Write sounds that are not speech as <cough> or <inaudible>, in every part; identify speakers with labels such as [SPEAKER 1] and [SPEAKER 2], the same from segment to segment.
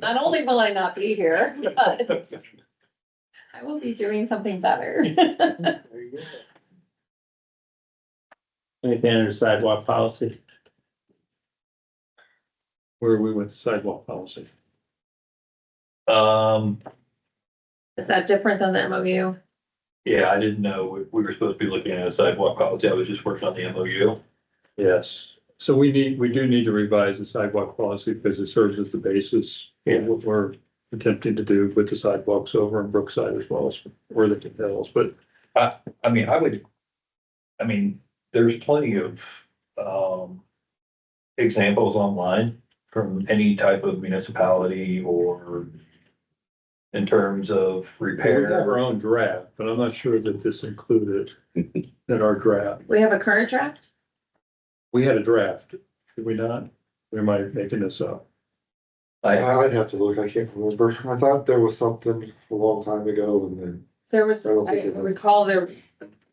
[SPEAKER 1] Not only will I not be here, but I will be doing something better.
[SPEAKER 2] Anything under sidewalk policy?
[SPEAKER 3] Where we went sidewalk policy.
[SPEAKER 4] Um,
[SPEAKER 1] <laughs> Is that different than the MOU?
[SPEAKER 4] yeah, I didn't know. We- We were supposed to be looking at a sidewalk policy. I was just working on the MOU.
[SPEAKER 3] Yes. So we need, we do need to revise the sidewalk policy because it serves as the basis
[SPEAKER 4] Yeah.
[SPEAKER 3] for what we're attempting to do with the sidewalks over in Brookside as well as Worthington Hills, but
[SPEAKER 4] I mean, I would, I mean, there's plenty of, um, examples online from any type of municipality or in terms of
[SPEAKER 3] we have
[SPEAKER 4] repair.
[SPEAKER 3] our own draft, but I'm not sure that this included in our draft.
[SPEAKER 1] We have a current draft?
[SPEAKER 3] We had a draft, did we not? We might be making this up.
[SPEAKER 4] I,
[SPEAKER 5] I'd have to look, I can't remember. I thought there was something a long time ago and then.
[SPEAKER 1] There was,
[SPEAKER 5] I don't think
[SPEAKER 1] I
[SPEAKER 5] it was.
[SPEAKER 1] recall there,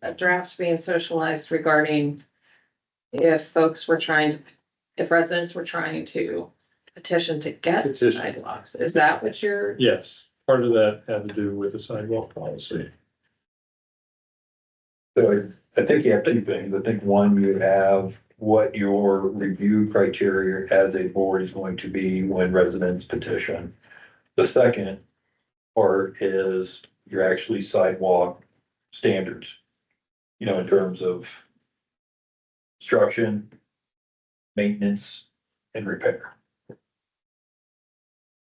[SPEAKER 1] a draft being socialized regarding if folks were trying, to, if residents were trying to petition to get
[SPEAKER 3] Petition.
[SPEAKER 1] sidewalks. Is that what you're,
[SPEAKER 3] Yes, part of that had to do with the sidewalk policy.
[SPEAKER 4] so I think you have two things. I think one, you have what your review criteria as a board is going to be when residents petition. The second part is your actually sidewalk standards. You know, in terms of construction, maintenance and repair.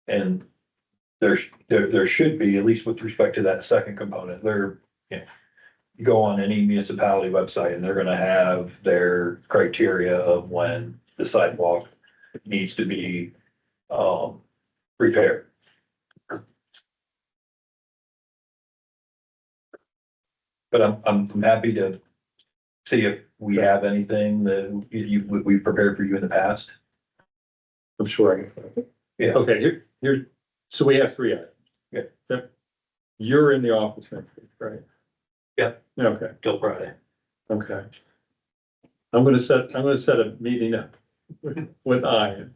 [SPEAKER 4] And there's, there, there should be, at least with respect to that second component, there, you know, you go on any municipality website and they're gonna have their criteria of when the sidewalk needs to be, um, repaired. But I'm, I'm I'm happy to see if we have anything that you- you, we- we've prepared for you in the past.
[SPEAKER 3] I'm sure I can. find it.
[SPEAKER 4] Yeah.
[SPEAKER 3] Okay, here, here, so we have three items.
[SPEAKER 4] Yeah.
[SPEAKER 3] Yep. You're in the office next week, right?
[SPEAKER 4] Yeah.
[SPEAKER 3] Okay,
[SPEAKER 4] Till Friday.
[SPEAKER 3] okay. I'm gonna set, I'm gonna set a meeting up with, with Ian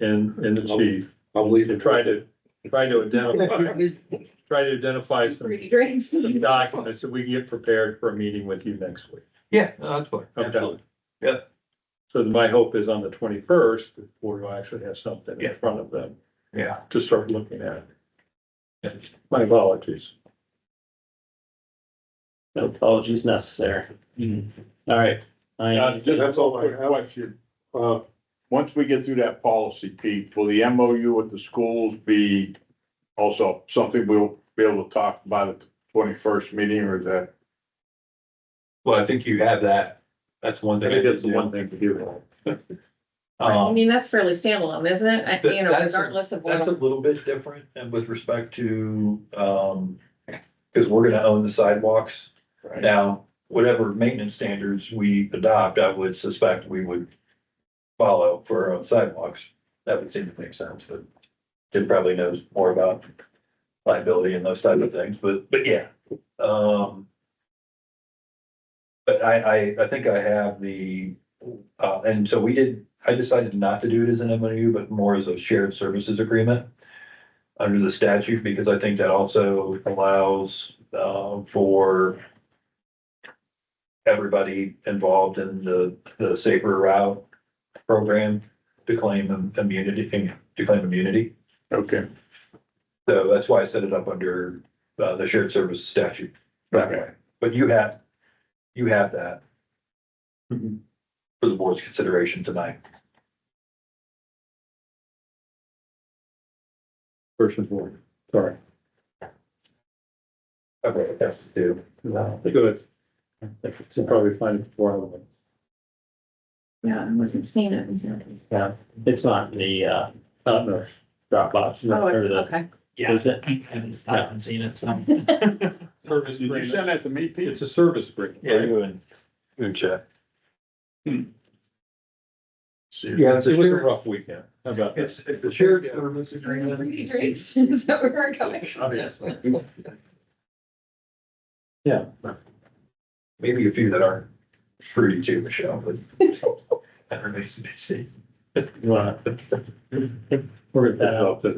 [SPEAKER 3] and, and the chief
[SPEAKER 5] I'll leave
[SPEAKER 3] to
[SPEAKER 5] <laughs>
[SPEAKER 3] try to, try to identify, try to identify some
[SPEAKER 1] free drinks?
[SPEAKER 3] documents that we can get prepared for a meeting with you next week.
[SPEAKER 4] Yeah, no, that's fine.
[SPEAKER 3] Okay.
[SPEAKER 4] Absolutely. Yeah.
[SPEAKER 3] So my hope is on the twenty-first, the board will actually have something
[SPEAKER 4] Yeah.
[SPEAKER 3] in front of them
[SPEAKER 4] Yeah.
[SPEAKER 3] to start looking at.
[SPEAKER 4] Yeah.
[SPEAKER 3] My apologies.
[SPEAKER 2] No apologies necessary.
[SPEAKER 3] Mm-hmm.
[SPEAKER 2] All right. I,
[SPEAKER 6] That's all I have.
[SPEAKER 5] question.
[SPEAKER 6] Uh, once we get through that policy, Pete, will the MOU with the schools be also something we'll be able to talk about at the twenty-first meeting or is that?
[SPEAKER 4] Well, I think you have that. That's one
[SPEAKER 3] I
[SPEAKER 4] thing.
[SPEAKER 3] think that's the
[SPEAKER 4] didn't
[SPEAKER 3] one
[SPEAKER 4] do.
[SPEAKER 3] thing to do.
[SPEAKER 1] <laughs> I
[SPEAKER 4] Um,
[SPEAKER 1] mean, that's fairly standalone, isn't it? I- You know,
[SPEAKER 4] That's-
[SPEAKER 1] regardless of
[SPEAKER 4] That's a
[SPEAKER 1] what,
[SPEAKER 4] little bit different and with respect to, um, because we're gonna own the sidewalks. Now, whatever maintenance standards we adopt, I would suspect we would follow for our own sidewalks. That would seem to make sense, but Jim probably knows more about liability and those type of things, but, but yeah. Um, but I, I, I think I have the, uh, and so we did, I decided not to do it as an MOU, but more as a shared services agreement under the statute, because I think that also allows, uh, for everybody involved in the, the safer route program to claim immunity, to claim immunity.
[SPEAKER 6] Okay.
[SPEAKER 4] So that's why I set it up under, uh, the shared services statute that way. But you have, you have that
[SPEAKER 3] Mhm.
[SPEAKER 4] for the board's consideration tonight.
[SPEAKER 3] First and foremost, sorry.
[SPEAKER 4] Okay, that's two.
[SPEAKER 3] I think it's, it's probably fine before I went.
[SPEAKER 1] yeah, I wasn't seeing it. was it?
[SPEAKER 2] it's not the, uh,
[SPEAKER 3] Not no.
[SPEAKER 2] Dropbox.
[SPEAKER 1] Oh,
[SPEAKER 2] or the-
[SPEAKER 1] okay.
[SPEAKER 2] Is it? I haven't seen it, so.
[SPEAKER 3] Service
[SPEAKER 6] Did you
[SPEAKER 3] agreement.
[SPEAKER 6] send that to me, Pete?
[SPEAKER 3] It's a service agreement.
[SPEAKER 4] Yeah, you Hmm. and, you and Chad.
[SPEAKER 3] Yeah, it was a rough weekend. How about that?
[SPEAKER 4] It's, it's a shared service
[SPEAKER 1] Free drinks, <laughs> is that where we're going?
[SPEAKER 3] Obviously.
[SPEAKER 4] <laughs> Maybe a few that aemained to be seen.
[SPEAKER 3] Right. We're gonna put it off to